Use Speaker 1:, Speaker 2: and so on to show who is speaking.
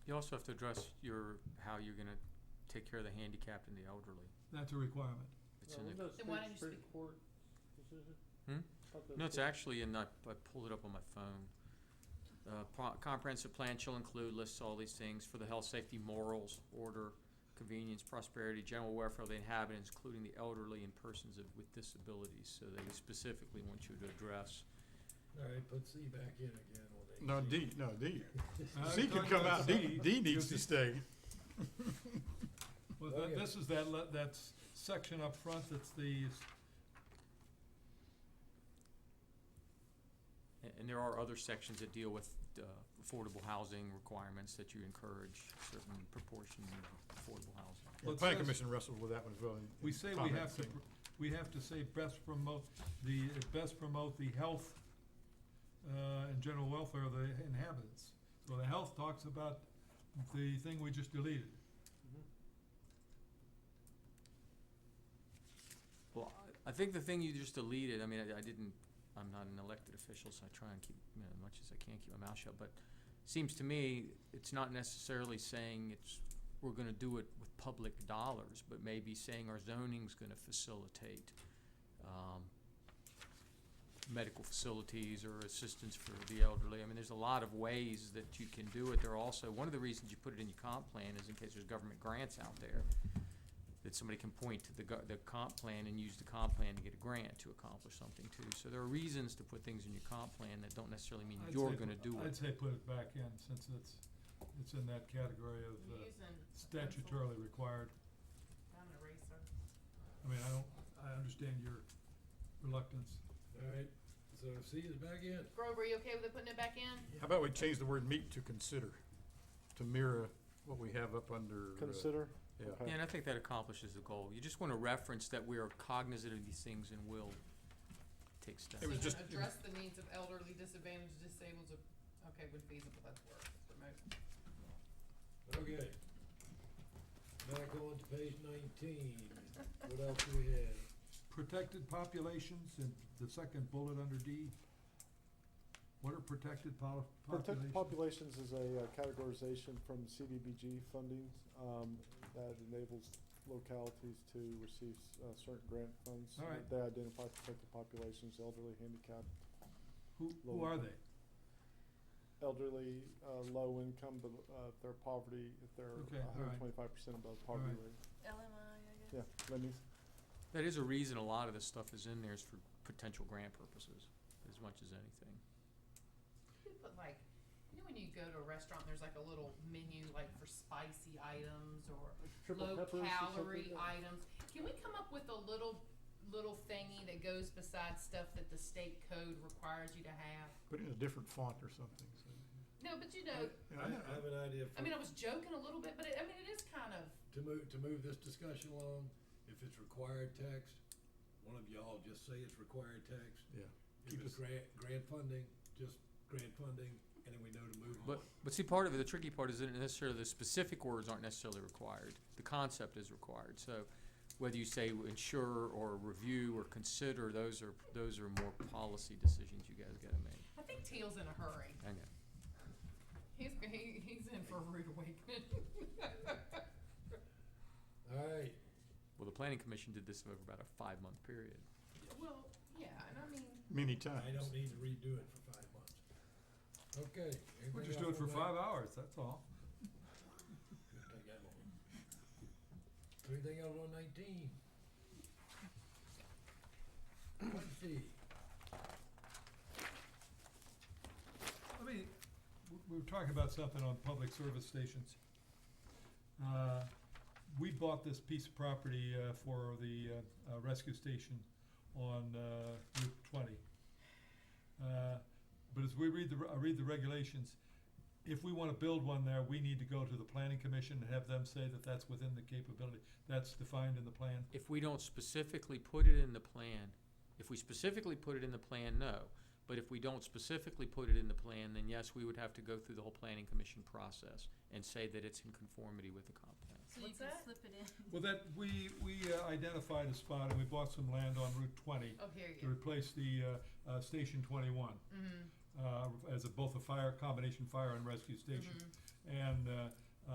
Speaker 1: You also have to address your, how you're gonna take care of the handicapped and the elderly.
Speaker 2: That's a requirement.
Speaker 1: It's in the,
Speaker 3: Well,
Speaker 4: Then why don't you
Speaker 3: wasn't that State
Speaker 4: speak-
Speaker 3: Supreme Court decision?
Speaker 1: Hmm?
Speaker 3: Thought that
Speaker 1: no,
Speaker 3: was
Speaker 1: it's actually in, I, I pulled it up on my phone. Uh, pro- comprehensive plan shall include, lists all these things for the health, safety, morals, order, convenience, prosperity, general welfare of the inhabitants, including the elderly and persons of, with disabilities. So they specifically want you to address
Speaker 5: All right, put C back in again on A.
Speaker 6: No, D, no, D.
Speaker 2: I
Speaker 6: C can
Speaker 2: thought
Speaker 6: come out,
Speaker 2: that's-
Speaker 6: D, D needs to stay.
Speaker 2: Well,
Speaker 5: Oh,
Speaker 2: that,
Speaker 5: yeah.
Speaker 2: this is that, le- that s- section up front, that's the, s-
Speaker 1: A- And there are other sections that deal with uh, affordable housing requirements that you encourage certain proportion of affordable housing.
Speaker 6: The
Speaker 2: Well, it
Speaker 6: planning
Speaker 2: says-
Speaker 6: commission wrestled with that one as well. in-
Speaker 2: we
Speaker 6: in
Speaker 2: say we have to,
Speaker 6: commenting.
Speaker 2: pr- we have to say best promote, the, best promote the health, uh, and general welfare of the inhabitants. So the health talks about the thing we just deleted.
Speaker 1: Well, I I think the thing you just deleted, I mean, I I didn't, I'm not an elected official, so I try and keep, you know, as much as I can, keep my mouth shut, but seems to me, it's not necessarily saying it's, we're gonna do it with public dollars, but maybe saying our zoning's gonna facilitate, um, medical facilities or assistance for the elderly. I mean, there's a lot of ways that you can do it. There are also, one of the reasons you put it in your comp plan is in case there's government grants out there, that somebody can point to the go- the comp plan and use the comp plan to get a grant to accomplish something too. So there are reasons to put things in your comp plan that don't necessarily mean
Speaker 2: I'd
Speaker 1: you're
Speaker 2: say
Speaker 1: gonna
Speaker 2: put-
Speaker 1: do it.
Speaker 2: I'd say put it back in, since it's, it's in that category
Speaker 4: Can
Speaker 2: of
Speaker 4: you
Speaker 2: uh,
Speaker 4: use an- a pencil?
Speaker 2: statutorily required.
Speaker 4: Not an eraser.
Speaker 2: I mean, I don't, I understand your reluctance.
Speaker 5: All right, so C is back in.
Speaker 4: Grover, you okay with it putting it back in?
Speaker 6: How about we change the word meet to consider, to mirror what we have up under, uh,
Speaker 3: Consider.
Speaker 6: yeah.
Speaker 3: Okay.
Speaker 1: Yeah, and I think that accomplishes the goal. You just wanna reference that we are cognizant of these things and will take steps.
Speaker 6: It was
Speaker 4: So
Speaker 6: just-
Speaker 4: then
Speaker 6: it was-
Speaker 4: Address the needs of elderly, disadvantaged, disabled, uh, okay, when feasible, that's where, promote.
Speaker 5: Okay. Back on to page nineteen. What else do we have?
Speaker 2: Protected populations in the second bullet under D. What are protected pol-
Speaker 3: Protected
Speaker 2: populations?
Speaker 3: populations is a uh, categorization from CDBG funding um, that enables localities to receive uh, certain grant funds.
Speaker 2: All right.
Speaker 3: They identify protected populations, elderly, handicapped,
Speaker 2: Who, who
Speaker 3: low-
Speaker 2: are they?
Speaker 3: elderly, uh, low income, but uh, if they're poverty, if they're
Speaker 2: Okay, all right.
Speaker 3: 125% above poverty
Speaker 2: right.
Speaker 3: rate.
Speaker 4: LMI, I guess.
Speaker 3: Yeah, that means
Speaker 1: That is a reason a lot of this stuff is in there is for potential grant purposes, as much as anything.
Speaker 4: You could put like, you know when you go to a restaurant, there's like a little menu like for spicy items or
Speaker 3: triple
Speaker 4: low
Speaker 3: peppers or something like
Speaker 4: calorie
Speaker 3: that.
Speaker 4: items. Can we come up with a little, little thingy that goes beside stuff that the state code requires you to have?
Speaker 6: Put it in a different font or something, so.
Speaker 4: No, but you
Speaker 3: Uh,
Speaker 4: know,
Speaker 6: Yeah,
Speaker 5: I
Speaker 6: I know.
Speaker 5: I have an idea
Speaker 4: I
Speaker 5: for,
Speaker 4: mean, I was joking a little bit, but it, I mean, it is kind of,
Speaker 5: to move, to move this discussion along, if it's required text, one of y'all just say it's required text.
Speaker 6: Yeah.
Speaker 5: If
Speaker 6: Keep us-
Speaker 5: it's grant, grant funding, just grant funding, and then we know to move on.
Speaker 1: But, but see, part of it, the tricky part is that necessarily the specific words aren't necessarily required. The concept is required. So whether you say ensure or review or consider, those are, those are more policy decisions you guys gotta make.
Speaker 4: I think Teal's in a hurry.
Speaker 1: I know.
Speaker 4: He's, he, he's in for a rude awakening.
Speaker 5: All right,
Speaker 1: Well, the planning commission did this over about a five-month period.
Speaker 4: Well, yeah, and I mean,
Speaker 6: Many times.
Speaker 5: I don't need to redo it for five months. Okay.
Speaker 2: We'll
Speaker 5: everything
Speaker 2: just do
Speaker 5: else
Speaker 2: it for
Speaker 5: on that?
Speaker 2: five hours, that's all.
Speaker 5: Take that one. Everything else on nineteen. Twenty,
Speaker 2: I mean, w- we were talking about something on public service stations. Uh, we bought this piece of property, uh, for the, uh, uh, rescue station on, uh, Route twenty. Uh, but as we read the, re- I read the regulations, if we wanna build one there, we need to go to the planning commission and have them say that that's within the capability, that's defined in the plan.
Speaker 1: If we don't specifically put it in the plan, if we specifically put it in the plan, no. But if we don't specifically put it in the plan, then yes, we would have to go through the whole planning commission process and say that it's in conformity with the comp plan.
Speaker 7: So you
Speaker 4: What's
Speaker 7: can
Speaker 4: that?
Speaker 7: slip it in.
Speaker 2: Well, that, we, we uh, identified a spot and we bought some land on Route twenty
Speaker 4: oh, here
Speaker 2: to
Speaker 4: you
Speaker 2: replace the, uh, uh, Station twenty-one.
Speaker 4: go. Mm-hmm.
Speaker 2: uh, as a, both a fire, combination fire and rescue station. And, uh,